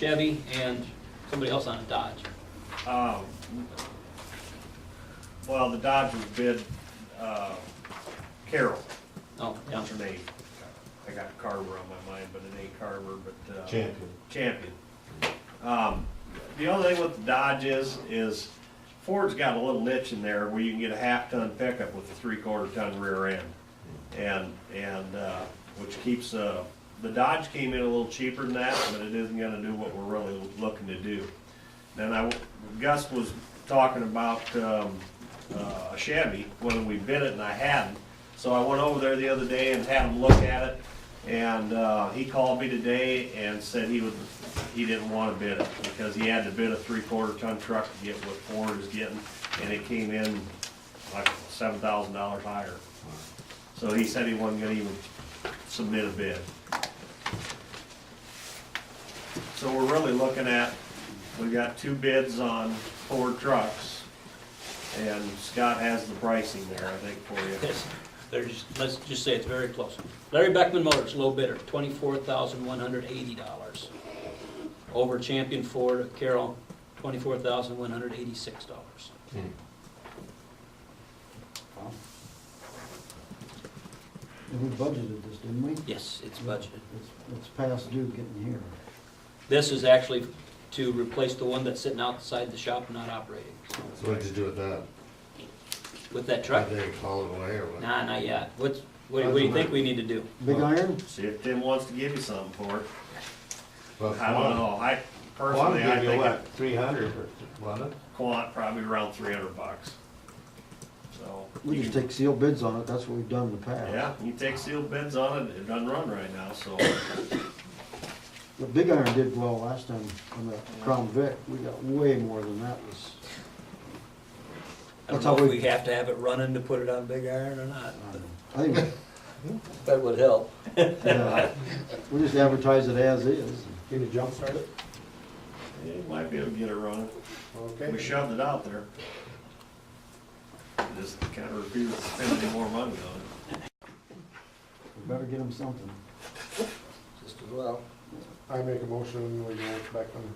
Chevy and somebody else on a Dodge. Um, Well, the Dodge was bid, uh, Carroll, Oh, yeah. what's her name? I got Carver on my mind, but it ain't Carver, but, uh. Champion. Champion. Um, the only thing with the Dodge is, is Ford's got a little niche in there where you can get a half-ton pickup with a three-quarter ton rear end. And, and, uh, which keeps, uh, the Dodge came in a little cheaper than that, but it isn't gonna do what we're really looking to do. Then I, Gus was talking about, um, uh, a Chevy, when we bid it and I hadn't. So I went over there the other day and had him look at it, and, uh, he called me today and said he would, he didn't wanna bid it, because he had to bid a three-quarter ton truck to get what Ford is getting, and it came in like seven thousand dollars higher. So he said he wasn't gonna even submit a bid. So we're really looking at, we got two bids on Ford trucks, and Scott has the pricing there, I think, for you. Yes, they're just, let's just say it's very close. Larry Beckman Motors, low bidder, twenty-four thousand one hundred eighty dollars. Over Champion Ford Carroll, twenty-four thousand one hundred eighty-six dollars. And we budgeted this, didn't we? Yes, it's budgeted. It's, it's past due getting here. This is actually to replace the one that's sitting outside the shop and not operating. So what did you do with that? With that truck? Did they haul it away or what? Nah, not yet. What's, what do- what do you think we need to do? Big iron? See if Tim wants to give you something for it. Well, I don't know, I Quan personally, I gave you think it- what, three hundred for, wasn't it? Quant probably around three hundred bucks. So. We you just can- take sealed bids on it, that's what we've done in the past. Yeah, you take sealed bids on it, it doesn't run right now, so. But Big Iron did well last time on the Crown Vic, we got way more than that was, I don't That's how know if we we- have to have it running to put it on Big Iron or not. but I think, That would help. yeah, we just advertise it as is. Can you jump start it? It might be able to get it running. We Okay. shoved it out there. Just kind of refused to spend any more money on it. We better get them something. Just as well. I make a motion, we go back on.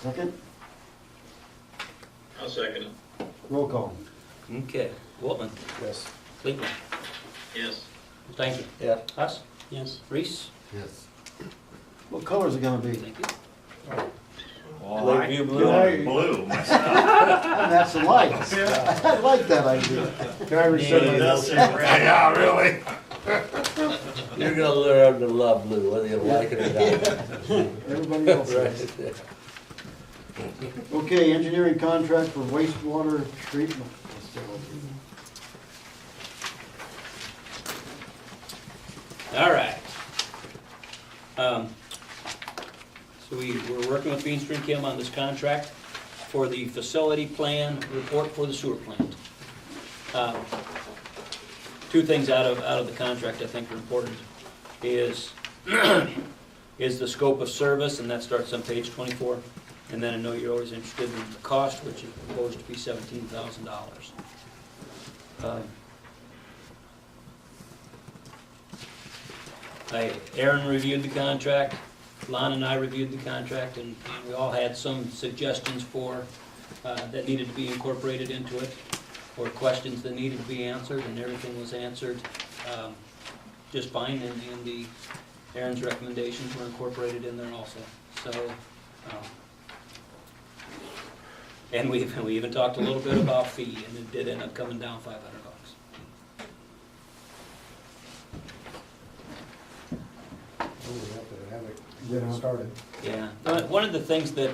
Second, I'll second it. roll call. Okay, Waltman, Yes. Cleveland, Yes. thank you. Yeah. Us? Yes. Reese? Yes. What color's it gonna be? Thank you. Well, I- Lakeview blue. Blue, myself. And that's the lights. I like that idea. Can I rescind my It does motion? say red. Yeah, really? You're gonna learn to love blue, whether you like it or Everybody else not. is. Okay, engineering contract for wastewater treatment facility. All right. Um, So we, we're working with Bean Street Kim on this contract for the facility plan report for the sewer plant. Um, Two things out of, out of the contract I think are important is, is the scope of service, and that starts on page twenty-four. And then I know you're always interested in the cost, which is proposed to be seventeen thousand dollars. Uh, I, Aaron reviewed the contract, Lon and I reviewed the contract, and and we all had some suggestions for, uh, that needed to be incorporated into it, or questions that needed to be answered, and everything was answered, um, just fine, and, and the, Aaron's recommendations were incorporated in there also, so, um, and we, we even talked a little bit about fee, and it did end up coming down five hundred bucks. Oh, we have to have it Yeah. get started. Yeah, Uh, one of the things that,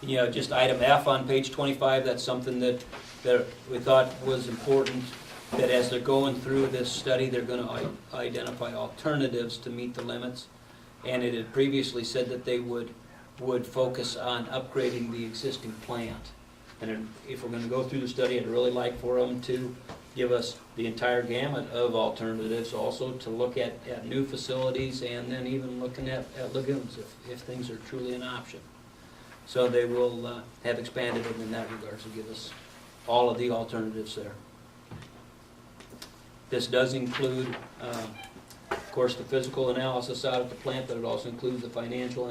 you know, just item F on page twenty-five, that's something that, that we thought was important, that as they're going through this study, they're gonna i- identify alternatives to meet the limits. And it had previously said that they would, would focus on upgrading the existing plant. And if we're gonna go through the study, I'd really like for them to give us the entire gamut of alternatives, also to look at, at new facilities, and then even looking at, at lagoons, if, if things are truly an option. So they will uh, have expanded it in that regard, to give us all of the alternatives there. This does include um, Of course, the physical analysis out at the plant, but it also includes the financial